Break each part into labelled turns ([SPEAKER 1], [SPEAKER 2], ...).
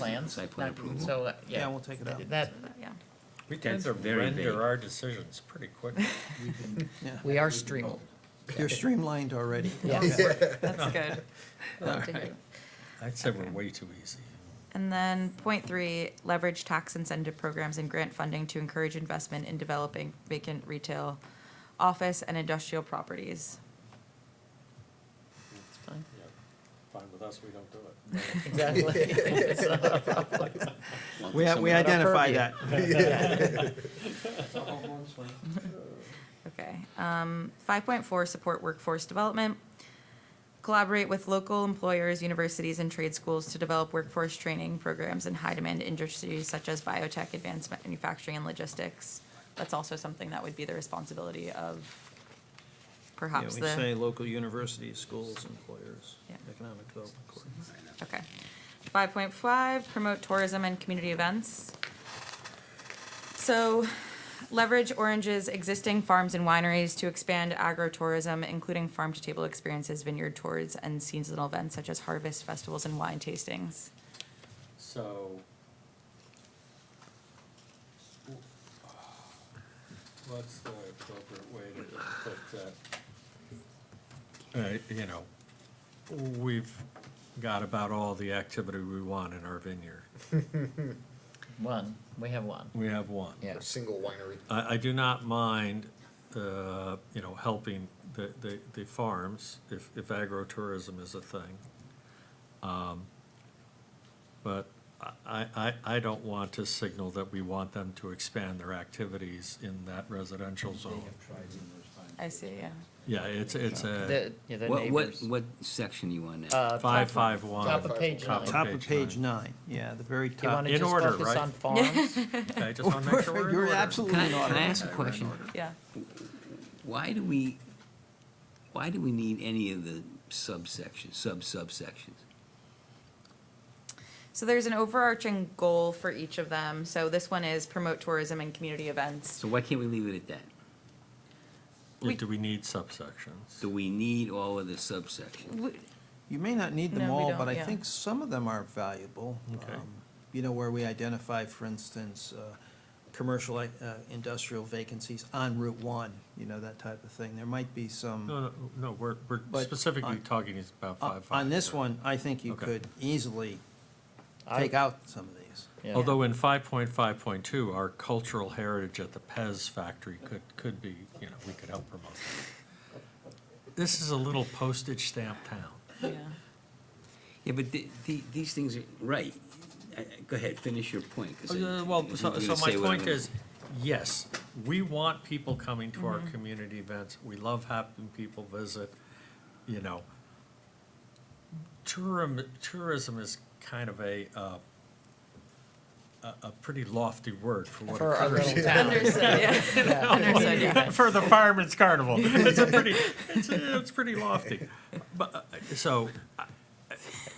[SPEAKER 1] plans.
[SPEAKER 2] Site plan
[SPEAKER 1] not-
[SPEAKER 2] approval.
[SPEAKER 1] So, uh, yeah.
[SPEAKER 3] Yeah, we'll take it out.
[SPEAKER 1] That,
[SPEAKER 4] Yeah.
[SPEAKER 5] We
[SPEAKER 2] That's
[SPEAKER 5] tend to
[SPEAKER 2] very vague.
[SPEAKER 5] render our decisions pretty quickly.
[SPEAKER 3] Yeah.
[SPEAKER 1] we are streaming.
[SPEAKER 3] You're streamlined already.
[SPEAKER 1] Yes.
[SPEAKER 4] That's good. Love to hear.
[SPEAKER 5] I'd say we're way too easy.
[SPEAKER 4] And then point three, leverage tax incentive programs and grant funding to encourage investment in developing vacant retail office and industrial properties.
[SPEAKER 1] It's fine.
[SPEAKER 5] Fine with us, we don't do it.
[SPEAKER 1] Exactly. It's not a problem.
[SPEAKER 2] Lumping
[SPEAKER 3] We,
[SPEAKER 2] some-
[SPEAKER 3] we
[SPEAKER 1] Not our
[SPEAKER 3] identify
[SPEAKER 1] purview.
[SPEAKER 3] that.
[SPEAKER 4] Okay. Um, five point four, support workforce development. Collaborate with local employers, universities, and trade schools to develop workforce training programs in high-demand industries such as biotech, advanced manufacturing, and logistics. That's also something that would be the responsibility of
[SPEAKER 3] Yeah,
[SPEAKER 4] perhaps
[SPEAKER 3] we
[SPEAKER 4] the.
[SPEAKER 3] say local universities, schools, employers,
[SPEAKER 4] Yeah.
[SPEAKER 3] economic development. corps.
[SPEAKER 4] Okay. Five point five, promote tourism and community events. So leverage Orange's existing farms and wineries to expand agro-tourism, including farm-to-table experiences, vineyard tours, and seasonal events such as harvest festivals and wine tastings.
[SPEAKER 5] So. What's the appropriate way to put that? Uh, you know, we've got about all the activity we want in our vineyard.
[SPEAKER 1] One, we have one.
[SPEAKER 5] We have one.
[SPEAKER 1] Yeah.
[SPEAKER 6] a single winery.
[SPEAKER 5] I, I do not mind, uh, you know, helping the, the, the farms if, if agritourism is a thing. Um, But I, I, I don't want to signal that we want them to expand their activities in that residential zone.
[SPEAKER 4] I see, yeah.
[SPEAKER 5] Yeah, it's, it's a
[SPEAKER 1] The, yeah, the
[SPEAKER 2] What, what,
[SPEAKER 1] neighbors.
[SPEAKER 2] what section you on that?
[SPEAKER 1] Uh,
[SPEAKER 5] five,
[SPEAKER 1] top-
[SPEAKER 5] five, one.
[SPEAKER 1] Top of page
[SPEAKER 5] Top
[SPEAKER 1] nine.
[SPEAKER 5] of
[SPEAKER 1] Do
[SPEAKER 3] Top of page nine, yeah, the very
[SPEAKER 1] you
[SPEAKER 3] top.
[SPEAKER 1] wanna
[SPEAKER 5] in
[SPEAKER 1] just
[SPEAKER 5] order,
[SPEAKER 1] focus
[SPEAKER 5] right?
[SPEAKER 1] on farms?
[SPEAKER 5] Okay, I just want to make sure we're in
[SPEAKER 3] You're
[SPEAKER 5] order.
[SPEAKER 3] absolutely
[SPEAKER 2] Can I,
[SPEAKER 3] in
[SPEAKER 2] can I
[SPEAKER 3] order.
[SPEAKER 2] ask a question?
[SPEAKER 4] Yeah.
[SPEAKER 2] Why do we, why do we need any of the subsections, sub-subsections?
[SPEAKER 4] So there's an overarching goal for each of them. So this one is promote tourism and community events.
[SPEAKER 2] So why can't we leave it at that?
[SPEAKER 4] We-
[SPEAKER 5] Do we need subsections?
[SPEAKER 2] Do we need all of the subsections?
[SPEAKER 4] W-
[SPEAKER 3] You may not need them
[SPEAKER 4] No, we
[SPEAKER 3] all,
[SPEAKER 4] don't,
[SPEAKER 3] but I
[SPEAKER 4] yeah.
[SPEAKER 3] think some of them are valuable.
[SPEAKER 5] Okay.
[SPEAKER 3] Um, You know, where we identify, for instance, uh, commercial, uh, industrial vacancies on Route One, you know, that type of thing. There might be some.
[SPEAKER 5] No, no, no, we're, we're
[SPEAKER 3] But
[SPEAKER 5] specifically
[SPEAKER 3] on-
[SPEAKER 5] talking about
[SPEAKER 3] On
[SPEAKER 5] five, five.
[SPEAKER 3] on this
[SPEAKER 5] right?
[SPEAKER 3] one, I think you
[SPEAKER 5] Okay.
[SPEAKER 3] could easily
[SPEAKER 1] I-
[SPEAKER 3] take out some of these.
[SPEAKER 1] Yeah.
[SPEAKER 5] Although in five point five point two, our cultural heritage at the Pez factory could, could be, you know, we could help promote. that. This is a little postage stamp town.
[SPEAKER 4] Yeah.
[SPEAKER 2] Yeah, but the, the, these things are, right. I- I- Go ahead, finish your point. 'cause I-
[SPEAKER 5] Uh, Well,
[SPEAKER 2] I think
[SPEAKER 5] so,
[SPEAKER 2] you're
[SPEAKER 5] so
[SPEAKER 2] gonna
[SPEAKER 5] my
[SPEAKER 2] say what I'm
[SPEAKER 5] point
[SPEAKER 2] gonna-
[SPEAKER 5] is, yes, we want people coming to our community events. We love having people visit, you know. Tourism, tourism is kind of a, uh, a, a pretty lofty word for what
[SPEAKER 1] For our
[SPEAKER 5] occurs.
[SPEAKER 1] little town.
[SPEAKER 4] Understood, yeah. Understood, yeah.
[SPEAKER 5] Oh, for the Fireman's Carnival. It's a pretty, it's, it's pretty lofty. But, uh, so, I,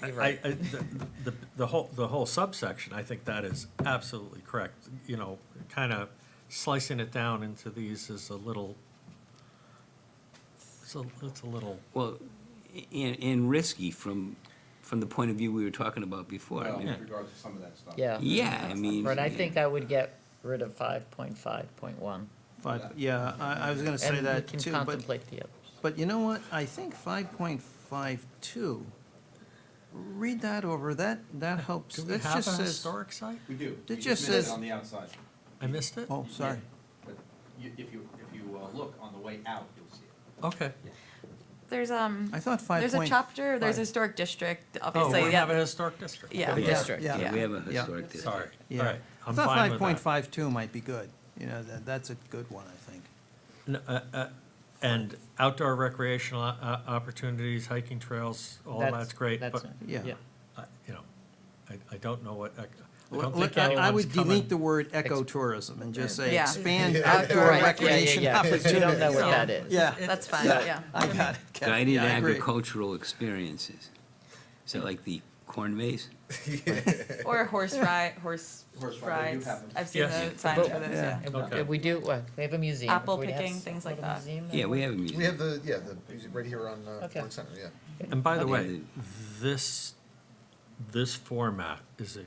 [SPEAKER 1] You're
[SPEAKER 5] I,
[SPEAKER 1] right.
[SPEAKER 5] I- the, the, the whole, the whole subsection, I think that is absolutely correct. You know, kind of slicing it down into these is a little, it's a, it's a little,
[SPEAKER 2] Well, a- and, and risky from, from the point of view we were talking about before. I
[SPEAKER 7] Well,
[SPEAKER 2] mean,
[SPEAKER 7] in regards Um, to some of that stuff.
[SPEAKER 1] Yeah.
[SPEAKER 2] Yeah, I mean.
[SPEAKER 1] But I think I would get rid of five point five point one.
[SPEAKER 3] But, yeah, I, I was gonna say
[SPEAKER 1] And we
[SPEAKER 3] that
[SPEAKER 1] can
[SPEAKER 3] too, but,
[SPEAKER 1] contemplate the others.
[SPEAKER 3] but you know what? I think five point five two, read that over, that, that helps.
[SPEAKER 5] do we
[SPEAKER 3] That
[SPEAKER 5] have a
[SPEAKER 3] just says.
[SPEAKER 5] historic site?
[SPEAKER 7] We do.
[SPEAKER 3] It
[SPEAKER 7] We
[SPEAKER 3] just
[SPEAKER 7] missed it
[SPEAKER 3] says-
[SPEAKER 7] On the outside.
[SPEAKER 5] I missed it?
[SPEAKER 3] Oh, sorry.
[SPEAKER 7] But you, if you, if you uh, look on the way out, you'll see it.
[SPEAKER 5] Okay.
[SPEAKER 4] There's, um.
[SPEAKER 3] I thought five
[SPEAKER 4] There's a
[SPEAKER 3] point.
[SPEAKER 4] chapter, there's a
[SPEAKER 3] five.
[SPEAKER 4] historic district,
[SPEAKER 5] Oh,
[SPEAKER 4] obviously,
[SPEAKER 5] we have a
[SPEAKER 4] yeah.
[SPEAKER 5] historic district.
[SPEAKER 4] Yeah.
[SPEAKER 2] Yeah.
[SPEAKER 1] District.
[SPEAKER 3] Yeah.
[SPEAKER 2] Yeah, we have a
[SPEAKER 3] Yeah.
[SPEAKER 2] historic district.
[SPEAKER 5] Sorry, all
[SPEAKER 3] Yeah.
[SPEAKER 5] right,
[SPEAKER 3] I
[SPEAKER 5] I'm
[SPEAKER 3] thought
[SPEAKER 5] fine
[SPEAKER 3] five
[SPEAKER 5] with that.
[SPEAKER 3] point five two might be good. You know, that, that's a good one, I think.
[SPEAKER 5] N- uh, uh, And outdoor recreational o- o- opportunities, hiking trails,
[SPEAKER 3] Oh,
[SPEAKER 5] all
[SPEAKER 1] That's-
[SPEAKER 5] that's great,
[SPEAKER 1] That's, it.
[SPEAKER 5] but,
[SPEAKER 3] yeah.
[SPEAKER 1] yeah.
[SPEAKER 5] I- you know, I, I don't know what, ec- I
[SPEAKER 3] Well,
[SPEAKER 5] don't think
[SPEAKER 3] I- I
[SPEAKER 5] anyone's
[SPEAKER 3] would delete the
[SPEAKER 5] coming.
[SPEAKER 3] word ecotourism and just say
[SPEAKER 4] Yeah.
[SPEAKER 3] expand
[SPEAKER 4] Yeah.
[SPEAKER 3] outdoor
[SPEAKER 4] Right. Yeah, yeah,
[SPEAKER 3] recreation
[SPEAKER 1] yeah, 'cause
[SPEAKER 3] opportunities.
[SPEAKER 1] we don't know what that is.
[SPEAKER 3] Yeah.
[SPEAKER 4] That's fine, yeah.
[SPEAKER 3] I got it. Kat.
[SPEAKER 2] Guided
[SPEAKER 3] Yeah, I agree.
[SPEAKER 2] agricultural experiences. Is that like the corn maze?
[SPEAKER 4] Or horse ride, horse
[SPEAKER 7] Horse ride, we
[SPEAKER 4] rides.
[SPEAKER 7] do have them.
[SPEAKER 4] I've seen
[SPEAKER 5] Yes.
[SPEAKER 4] the signs for
[SPEAKER 1] But-
[SPEAKER 4] those,
[SPEAKER 3] Yeah.
[SPEAKER 4] yeah.
[SPEAKER 1] And
[SPEAKER 5] Okay.
[SPEAKER 1] we- We do, well, we have a museum.
[SPEAKER 4] Apple
[SPEAKER 1] We'd have
[SPEAKER 4] picking,
[SPEAKER 1] s-
[SPEAKER 4] things like
[SPEAKER 1] little
[SPEAKER 4] that.
[SPEAKER 1] museum there.
[SPEAKER 2] Yeah, we have a museum.
[SPEAKER 6] We have the, yeah, the, right here on, uh,
[SPEAKER 1] Okay.
[SPEAKER 6] Warren Center, yeah.
[SPEAKER 5] And by the
[SPEAKER 2] Okay.
[SPEAKER 5] way, this, this format is